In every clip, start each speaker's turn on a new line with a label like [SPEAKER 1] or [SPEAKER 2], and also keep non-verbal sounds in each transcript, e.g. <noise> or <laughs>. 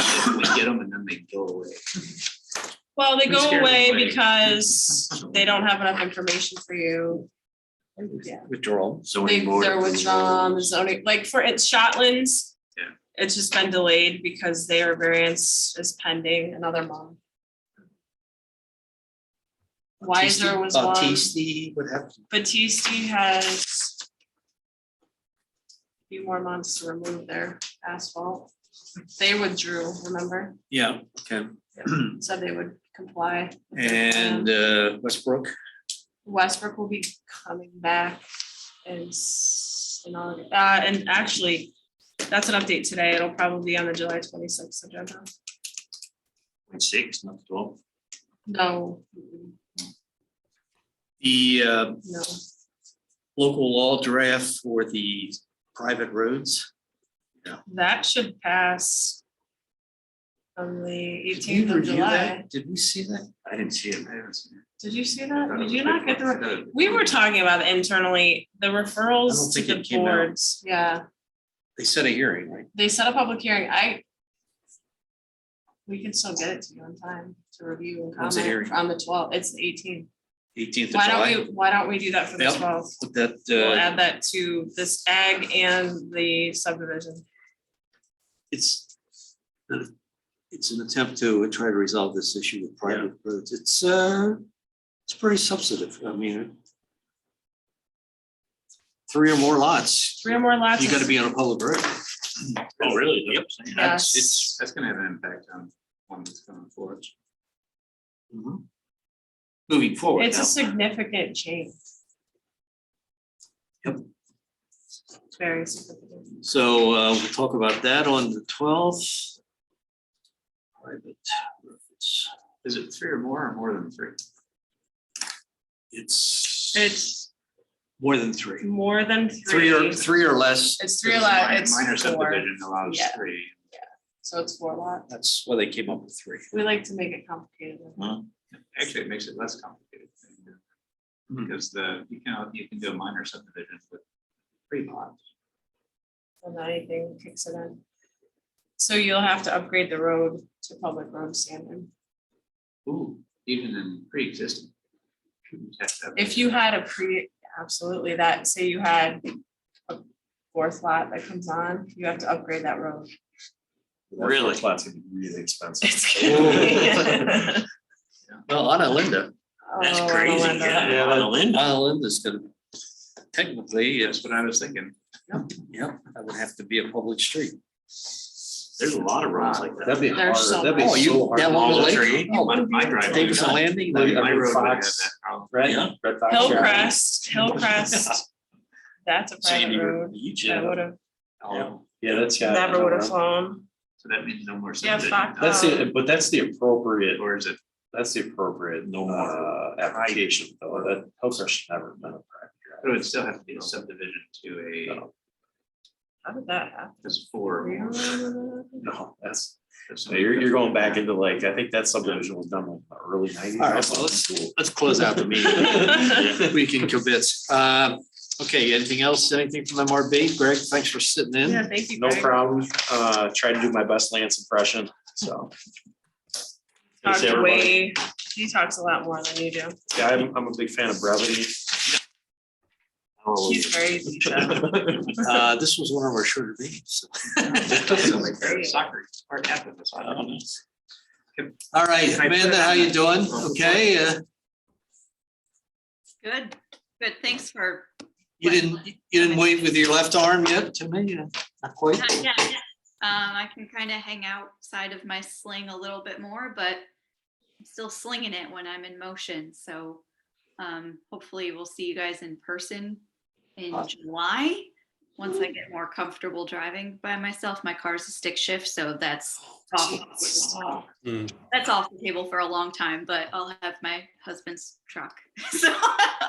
[SPEAKER 1] We get them and then they go away.
[SPEAKER 2] Well, they
[SPEAKER 1] I'm
[SPEAKER 2] go
[SPEAKER 1] scared of
[SPEAKER 2] away
[SPEAKER 1] like-
[SPEAKER 2] because they don't have enough information for you. Yeah. um,
[SPEAKER 1] Withdrawal.
[SPEAKER 2] They,
[SPEAKER 1] Zoning board.
[SPEAKER 2] they're withdrawn, the zoning, like for, it's Shotlands.
[SPEAKER 1] Yeah.
[SPEAKER 2] It's just been delayed because their variance is pending another month. Wiser was
[SPEAKER 1] uh,
[SPEAKER 2] one.
[SPEAKER 1] Autiste would have.
[SPEAKER 2] Batiste has a few more months to remove their asphalt. They withdrew, remember?
[SPEAKER 1] Yeah, okay. <clears throat>
[SPEAKER 2] Said they would comply.
[SPEAKER 1] And uh, Westbrook,
[SPEAKER 2] Westbrook will be coming back and s- in August. Uh, and actually, that's an update today. It'll probably be on the July twenty-sixth agenda.
[SPEAKER 1] point six, not twelve.
[SPEAKER 2] No,
[SPEAKER 1] The uh,
[SPEAKER 2] no.
[SPEAKER 1] local law draft for the private roads.
[SPEAKER 2] That should pass on the
[SPEAKER 1] Did you
[SPEAKER 2] eighteenth of
[SPEAKER 1] review
[SPEAKER 2] July.
[SPEAKER 1] that? Did we see that? I didn't see it. I haven't seen it.
[SPEAKER 2] Did you see
[SPEAKER 1] I
[SPEAKER 2] that?
[SPEAKER 1] thought it
[SPEAKER 2] Did
[SPEAKER 1] was
[SPEAKER 2] you
[SPEAKER 1] a
[SPEAKER 2] not
[SPEAKER 1] good
[SPEAKER 2] get the?
[SPEAKER 1] one.
[SPEAKER 2] re-
[SPEAKER 1] I thought it was a
[SPEAKER 2] We
[SPEAKER 1] good
[SPEAKER 2] were
[SPEAKER 1] one.
[SPEAKER 2] talking about internally, the referrals to
[SPEAKER 1] think
[SPEAKER 2] the
[SPEAKER 1] it came out.
[SPEAKER 2] boards, yeah,
[SPEAKER 1] They set a hearing, right?
[SPEAKER 2] they set a public hearing, I. We can still get it to you on time to review and
[SPEAKER 1] When's the
[SPEAKER 2] comment
[SPEAKER 1] hearing?
[SPEAKER 2] on the twelfth, it's the eighteenth.
[SPEAKER 1] Eighteenth of
[SPEAKER 2] Why
[SPEAKER 1] July.
[SPEAKER 2] don't we, why don't we do that for the
[SPEAKER 1] Yep.
[SPEAKER 2] twelfth?
[SPEAKER 1] Put that,
[SPEAKER 2] We'll
[SPEAKER 1] uh,
[SPEAKER 2] add that to this ag and the subdivision.
[SPEAKER 3] it's, it's an attempt to try to resolve this issue with private roads. It's, uh, it's pretty substantive. I mean, three or more lots,
[SPEAKER 2] Three or more lots.
[SPEAKER 3] you
[SPEAKER 2] is-
[SPEAKER 3] gotta be on a public road.
[SPEAKER 1] Oh, really? Yep.
[SPEAKER 2] Yes.
[SPEAKER 1] It's,
[SPEAKER 4] That's gonna have an impact on one that's coming forward.
[SPEAKER 3] Mm-hmm.
[SPEAKER 1] moving forward.
[SPEAKER 2] It's a significant change.
[SPEAKER 3] Yep.
[SPEAKER 2] It's Very significant.
[SPEAKER 3] So, uh, we'll talk about that on the twelfth. Private roads.
[SPEAKER 4] Is it three or more or more than three?
[SPEAKER 3] It's
[SPEAKER 2] It's
[SPEAKER 3] more than three.
[SPEAKER 2] more than
[SPEAKER 3] Three
[SPEAKER 2] three.
[SPEAKER 3] or, three or less,
[SPEAKER 2] It's three
[SPEAKER 4] Because
[SPEAKER 2] lot,
[SPEAKER 4] mi- Minor
[SPEAKER 2] it's four,
[SPEAKER 4] subdivision allows
[SPEAKER 2] Yeah.
[SPEAKER 4] three.
[SPEAKER 2] so it's four lot.
[SPEAKER 3] that's why they came up with three.
[SPEAKER 2] We like to make it complicated.
[SPEAKER 4] Actually, it makes it less complicated.
[SPEAKER 5] Mm-hmm.
[SPEAKER 3] Hmm.
[SPEAKER 4] Because the, you can, you can do a minor subdivision with three lots.
[SPEAKER 2] And then anything kicks it in. So you'll have to upgrade the road to public road standard.
[SPEAKER 4] Ooh, even in pre-existing. Shouldn't have to have-
[SPEAKER 2] If you had a pre, absolutely, that, say you had a fourth lot that comes on, you have to upgrade that road. <laughs>
[SPEAKER 3] Really?
[SPEAKER 5] That's really expensive.
[SPEAKER 2] It's gonna be-
[SPEAKER 3] Well, Anna Linda,
[SPEAKER 5] That's
[SPEAKER 2] Oh,
[SPEAKER 5] crazy,
[SPEAKER 2] Melinda.
[SPEAKER 5] yeah.
[SPEAKER 3] Anna Linda's gonna, technically, yes,
[SPEAKER 4] That's what I was thinking.
[SPEAKER 3] Yep, that would have to be a public street.
[SPEAKER 5] There's a lot of roads like that.
[SPEAKER 3] That'd be
[SPEAKER 5] <laughs>
[SPEAKER 2] There's so
[SPEAKER 3] That'd be
[SPEAKER 5] Oh,
[SPEAKER 2] much.
[SPEAKER 3] so hard. Oh, That long
[SPEAKER 5] All
[SPEAKER 3] lake?
[SPEAKER 5] tree.
[SPEAKER 3] Oh,
[SPEAKER 4] My my driveway.
[SPEAKER 3] Davidson Landing,
[SPEAKER 5] Like,
[SPEAKER 4] My
[SPEAKER 5] I mean,
[SPEAKER 4] road would have
[SPEAKER 5] Fox-
[SPEAKER 4] that problem.
[SPEAKER 5] Red,
[SPEAKER 3] Yeah.
[SPEAKER 5] Red Fox. Drive.
[SPEAKER 2] Hillcrest, Hillcrest,
[SPEAKER 5] <laughs>
[SPEAKER 2] that's a private
[SPEAKER 5] Sandy
[SPEAKER 2] road, that would have,
[SPEAKER 4] Oh,
[SPEAKER 5] Yeah, that's got.
[SPEAKER 2] never would have flown.
[SPEAKER 4] So that means no more
[SPEAKER 2] Yeah,
[SPEAKER 4] subdivision.
[SPEAKER 2] Fox-
[SPEAKER 5] That's the, but that's the appropriate,
[SPEAKER 4] Or is it
[SPEAKER 5] that's the appropriate, no
[SPEAKER 3] Uh,
[SPEAKER 5] more uh, application, though, that Hillcrest should never have been a private
[SPEAKER 4] But it would still have to be a subdivision to a,
[SPEAKER 5] drive.
[SPEAKER 2] How did that happen?
[SPEAKER 4] that's four. or
[SPEAKER 2] Do you
[SPEAKER 4] more.
[SPEAKER 2] remember that?
[SPEAKER 5] No, no, that's,
[SPEAKER 4] That's
[SPEAKER 5] no, you're, you're going
[SPEAKER 4] <laughs>
[SPEAKER 5] back into like, I think that subdivision was done like in the early nineties.
[SPEAKER 3] All right, well, let's- Let's close out the meeting. We can commit. Um, okay, anything else? Anything from MRB? Greg, thanks for sitting in.
[SPEAKER 2] <laughs> Yeah, thank you.
[SPEAKER 5] No
[SPEAKER 2] Greg.
[SPEAKER 5] problem, uh, tried to do my best Lance impression, so. Thanks,
[SPEAKER 2] Talked
[SPEAKER 5] everybody.
[SPEAKER 2] way- He talks a lot more than you do.
[SPEAKER 5] Yeah, I'm, I'm a big fan of brevity.
[SPEAKER 3] Oh,
[SPEAKER 2] He's crazy.
[SPEAKER 3] Uh, this was one of our shorter meetings.
[SPEAKER 4] Soccer, or half of the soccer.
[SPEAKER 3] All right, Amanda, how you doing? Okay, uh,
[SPEAKER 6] Good, good. Thanks for,
[SPEAKER 3] you didn't, you didn't wave with your left arm yet to me? Uh, Not quite.
[SPEAKER 6] <laughs> yeah, yeah, yeah. Um, I can kind of hang outside of my sling a little bit more, but I'm still slinging it when I'm in motion. So um, hopefully we'll see you guys in person in
[SPEAKER 3] Awesome.
[SPEAKER 6] July. Once I get more comfortable driving by myself, my car's a stick shift, so that's
[SPEAKER 3] Oh,
[SPEAKER 6] off.
[SPEAKER 5] Hmm.
[SPEAKER 6] That's off the table for a long time, but I'll have my husband's truck. <laughs> So,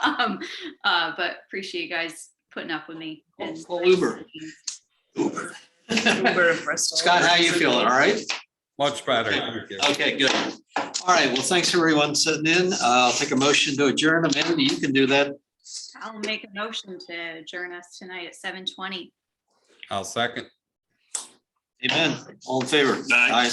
[SPEAKER 6] um, uh, but appreciate you guys putting up with me.
[SPEAKER 3] Call-
[SPEAKER 6] and-
[SPEAKER 3] call Uber.
[SPEAKER 2] Uber in Bristol.
[SPEAKER 3] Scott, how you feeling? All right?
[SPEAKER 7] Much better. Thank you.
[SPEAKER 3] Okay, good. All right, well, thanks everyone sitting in. Uh, I'll take a motion to adjourn. Amanda, you can do that.
[SPEAKER 6] I'll make a motion to adjourn us tonight at seven twenty.
[SPEAKER 7] I'll second.
[SPEAKER 8] Amen. All in favor?
[SPEAKER 3] Aye.